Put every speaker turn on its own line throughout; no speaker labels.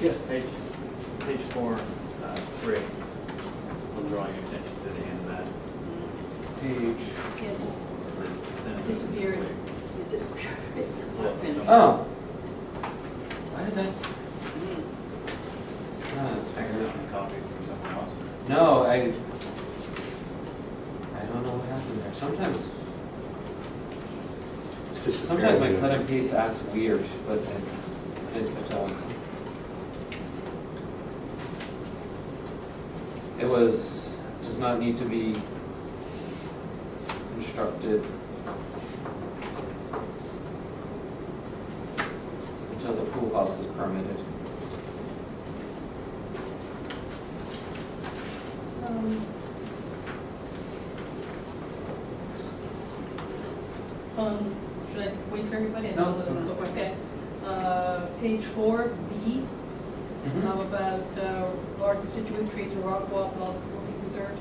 Yes, page, page four, uh, three. I'm drawing your attention to the end of that.
Page,
Yeah, just
The sentence is
disappeared.
complete.
It disappeared. It's not finished.
oh. Why did that? Oh, that's weird.
Accidentally copied from someone else.
No, I, I don't know what happened there. Sometimes, sometimes my cut and paste acts weird, but I didn't catch on. It was, does not need to be constructed until the pool house is permitted.
Um, Um, should I wait for everybody? I
No,
told them to
no.
look Okay. Uh, page four, B,
Mm-hmm.
how about uh, large deciduous trees and rock wall will be preserved?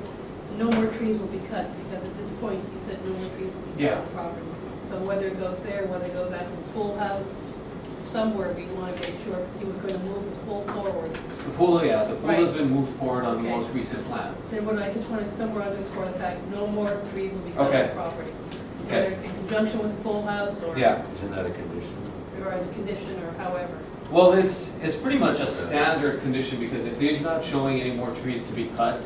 No more trees will be cut, because at this point, you said no more trees will be cut on
Yeah.
the property. So whether it goes there, whether it goes out to the pool house, somewhere we want to make sure, because he was going to move the pool forward.
The pool, yeah, the pool has
Right.
been moved forward on the
Okay.
most recent plans.
Then what I just want to somewhere underscore the fact, no more trees will be cut on
Okay.
the property.
Okay.
Whether it's in conjunction with the full house or.
Yeah,
Isn't that a condition?
Or as a condition or however.
well, it's, it's pretty much a standard condition, because if he's not showing any more trees to be cut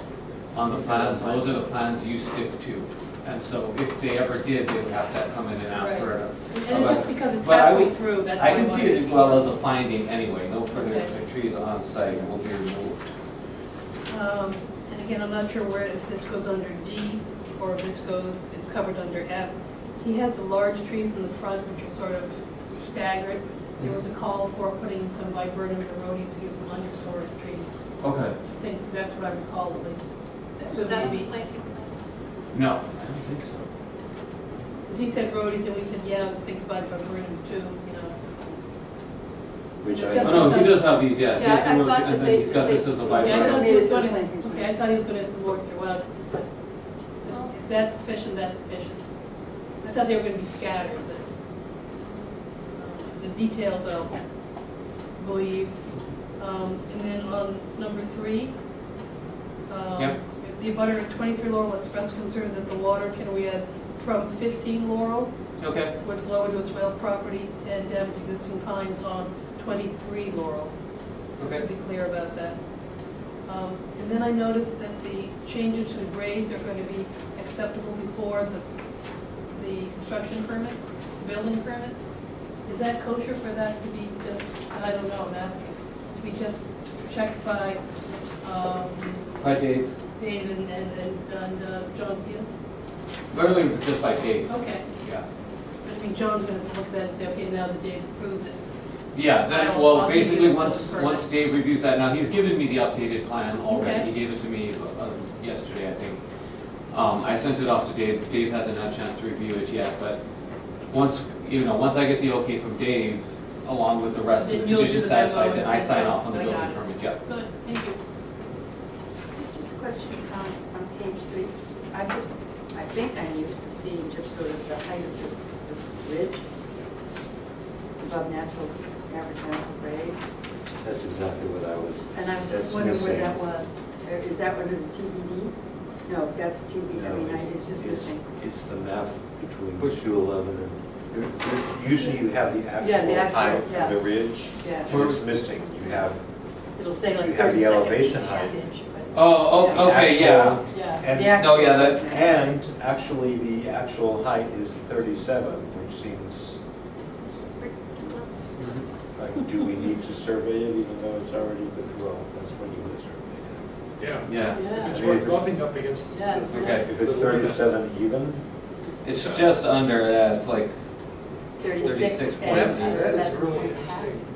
on the plans, those are the plans you stick to. And so if they ever did, they would have to come in and ask for a.
And it's just because it's
But I would-
halfway through, that's why
I
I
can
wanted.
see it as well as a finding anyway, no further
Okay.
trees on site will be removed.
Um, And again, I'm not sure where, if this goes under D or if this goes, is covered under F. He has the large trees in the front which are sort of staggered. There was a call for putting in some viburnums or rhodies to give some understory trees.
Okay.
I think that's what I recall at least. So
Was that a
maybe-
planting plan?
No, I don't think so.
Because we said roadies, and we said, yeah, think about vibrariums too, you know.
Which I,
Yes.
Oh, no, he does have these, yeah, he
Yeah,
has
I- I
the ones,
thought
and
that
then
they-
he's got
they-
this as a
yeah,
Yeah, I
byproduct.
thought he was
Yeah.
gonna, okay, I thought he was gonna support throughout, but if that's sufficient, that's sufficient. I thought they were gonna be scattered, but um, the details I'll believe. Um, And then on number three, um,
Yep.
if the abutter of 23 Laurel expressed concern that the water, can we add from 15 Laurel
Okay,
would flow into a swale property and damage existing pines on 23 Laurel. Just to
okay.
be clear about that. Um, And then I noticed that the changes to the grades are going to be acceptable before the, the construction permit, building permit. Is that kosher for that to be just, I don't know, I'm asking, to be just checked by um,
By Dave,
Dave and, and, and- and uh, John Fields?
literally just by Dave,
Okay,
yeah.
I think John's going to look at that and say, okay, now that Dave's approved it.
Yeah, then,
I'll-
well,
I'll give you
basically,
the
once,
full
once
version.
Dave reviews that, now, he's given me the updated plan already,
Okay.
he gave it to me uh, yesterday, I think. Um, I sent it off to Dave, Dave hasn't had a chance to review it yet, but once, you know, once I get the okay from Dave, along with the rest of
Then
the
you'll do
conditions
the memo
satisfied, then
and "Oh
I
send
sign
it.
off on the
I got
building
it.
permit, yeah.
Good, thank you.
It's just a question on, on page three. I just, I think I'm used to seeing just sort of the height of the, the ridge above natural, average natural grade.
that's exactly what I was.
And I was just
that's
wondering where
missing.
that was. Or Is that what is TBD? No, that's TBD, I
No,
mean, I- it's just missing.
It's the map between
Which-
211 and, there- there- usually you have the
Yeah, the
actual
actual,
height
yeah.
of the ridge.
Yeah.
and It's missing, you have
It'll say like
You have the
30 seconds,
elevation
half
height.
inch, but-
Oh,
Yeah.
oh, okay, yeah.
actual-
Yeah.
The
And,
actual-
yeah, that-
and actually, the actual height is 37, which seems like, do we need to survey it even though it's already, been- well, that's when you would survey
Yeah,
Yeah,
Yeah.
if it's worth bumping up against.
Yeah, it's
Okay.
really
it. If it's 37 even,
it's just under, yeah, it's like,
36.
36.
and
That, that is
11.
really interesting.